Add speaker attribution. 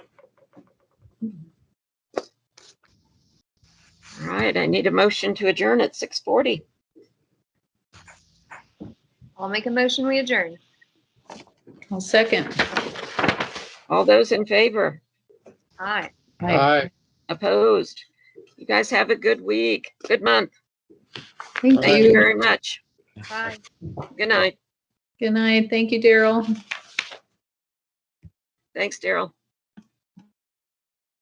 Speaker 1: right, I need a motion to adjourn at 6:40.
Speaker 2: I'll make a motion, we adjourn.
Speaker 3: I'll second.
Speaker 1: All those in favor?
Speaker 2: Aye.
Speaker 3: Aye.
Speaker 4: Aye.
Speaker 1: Opposed? You guys have a good week, good month.
Speaker 3: Thank
Speaker 1: Thank you
Speaker 3: you.
Speaker 1: very much.
Speaker 2: Bye.
Speaker 1: Good night.
Speaker 3: Good night. Thank you, Daryl.
Speaker 1: Thanks, Daryl.